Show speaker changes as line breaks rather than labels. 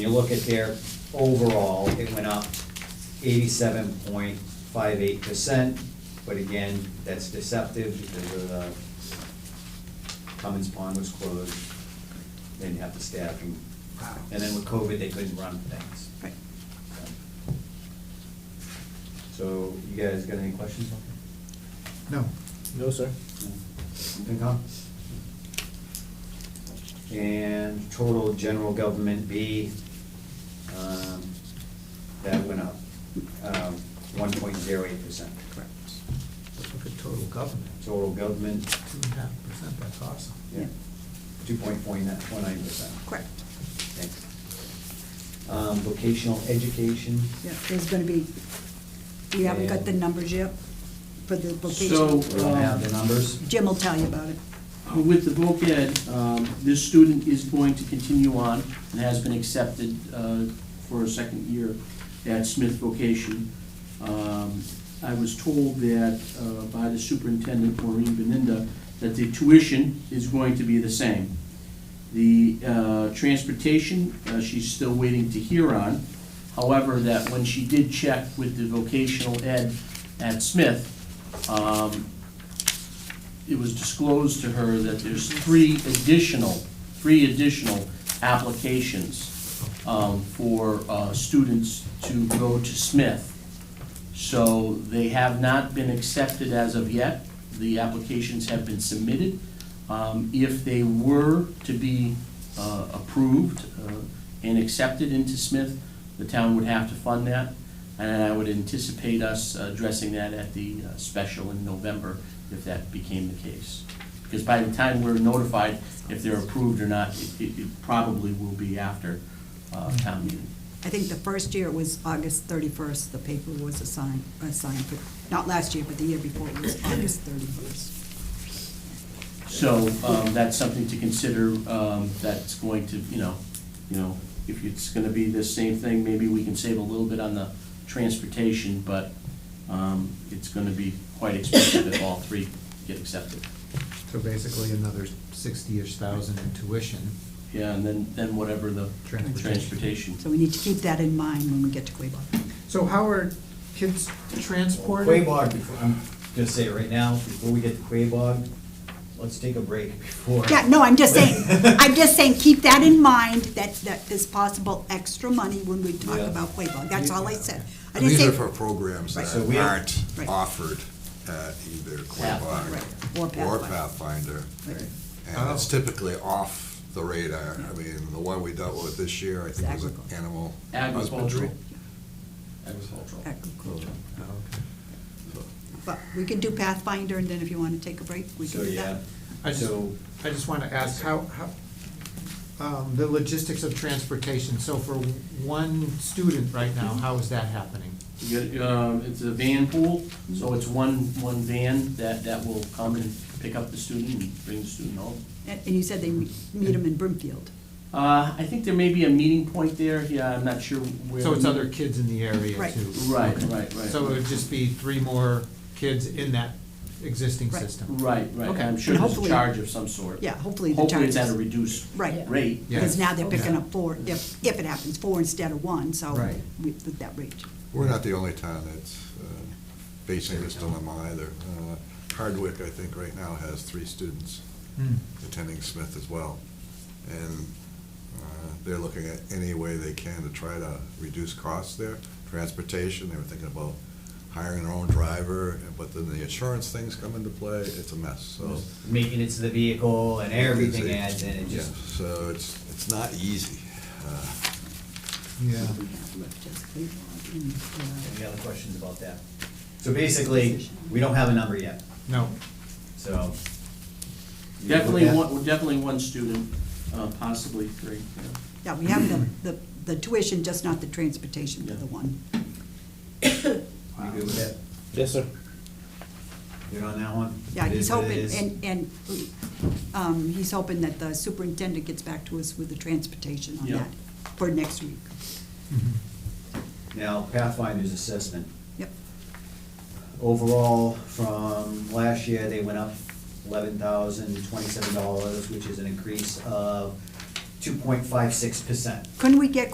You look at their overall, it went up eighty-seven point five eight percent, but again, that's deceptive because of the Cummins Pond was closed, they didn't have the staffing.
Wow.
And then with COVID, they couldn't run things.
Right.
So you guys got any questions?
No.
No, sir.
FinCom? And total general government B, um, that went up, um, one point zero eight percent.
Correct. Let's look at total government,
Total government,
two and a half percent, that's awesome.
yeah, two point four nine percent.
Correct.
Thanks. Um, vocational education,
Yeah, there's gonna be, you haven't got the numbers yet for the vocational.
So-
we don't have the numbers.
Jim will tell you about it.
Uh, With the voc ed, um, this student is going to continue on and has been accepted uh, for a second year at Smith Vocation. Um, I was told that uh, by the superintendent, Maureen Beninda, that the tuition is going to be the same. The uh, transportation, uh, she's still waiting to hear on. However, that when she did check with the vocational ed at Smith, um, it was disclosed to her that there's three additional, three additional applications um, for uh, students to go to Smith. So they have not been accepted as of yet. The applications have been submitted. Um, If they were to be uh, approved uh, and accepted into Smith, the town would have to fund that. And I would anticipate us addressing that at the uh, special in November if that became the case. Because by the time we're notified if they're approved or not, it- it it probably will be after uh, town meeting.
I think the first year was August thirty-first, the paper was assigned, assigned, but not last year, but the year before it was August thirty-first.
So um, that's something to consider, um, that's going to, you know, you know, if it's gonna be the same thing, maybe we can save a little bit on the transportation, but um, it's gonna be quite expensive if all three get accepted.
So basically another sixty-ish thousand in tuition.
Yeah, and then, then whatever the
Transportation.
transportation.
So we need to keep that in mind when we get to Quabog.
So how are kids transported?
Um, Quabog, before- I'm gonna say it right now, before we get to Quabog, let's take a break before.
Yeah, no, I'm just saying, I'm just saying, keep that in mind, that, that there's possible extra money when we talk
Yeah.
about Quabog, that's all I said. I
And
didn't
These
say
are for programs
Right.
So
that
we-
aren't
Right.
offered at either Quabog
Right, or
or
Pathfinder.
Pathfinder.
Right.
And it's
Oh.
typically off the radar.
Yeah.
I mean, the one we dealt with this year, I think was an
Agriculture.
animal husbandry.
Agricultural. Agricultural.
Agricultural.
Oh, okay.
But we can do Pathfinder, and then if you want to take a break, we
So,
can do
yeah,
that.
I just,
so,
I just wanna ask how, how, um, the logistics of transportation, so for one student right now, how is that happening?
You get, um, It's a van pool, so it's one, one van that, that will come and pick up the student and bring the student home.
And and you said they meet them in Brimfield.
Uh, I think there may be a meeting point there, yeah, I'm not sure where.
So it's other kids in the area
Right.
too?
Right,
Okay.
right, right.
So it would just be three more kids in that existing
Right.
system?
Right, right,
Okay.
I'm sure
And
there's a
hopefully-
charge of some sort.
Yeah, hopefully the
Hopefully
charges.
it's at a reduced
Right.
rate.
Yeah.
Because now they're picking
Yeah.
up four, if, if it happens, four instead of one, so
Right.
we- with that rate.
We're not the only town that's uh, facing this dilemma either. Uh, Hardwick, I think, right now has three students
Hmm.
attending Smith as well. And uh, they're looking at any way they can to try to reduce costs there. Transportation, they were thinking about hiring their own driver, but then the insurance things come into play, it's a mess, so.
maintenance of the vehicle and everything adds in, it
Yeah,
just,
So it's, it's not easy. Uh,
Yeah.
We have left just Cleveland and, uh,
any other questions about that? So basically, we don't have a number yet,
No,
so.
Definitely one, definitely one student, uh, possibly three, yeah.
Yeah, we have the, the the tuition, just not the transportation for
Yeah.
the one.
You good with that?
Yes, sir.
Good on that one?
Yeah,
It
he's
is what it
hoping,
is.
and, and, um, he's hoping that the superintendent gets back to us with the transportation on
Yeah.
that for next week.
Now, Pathfinder's assessment.
Yep,
Overall, from last year, they went up eleven thousand twenty-seven dollars, which is an increase of two point five six percent.
couldn't we get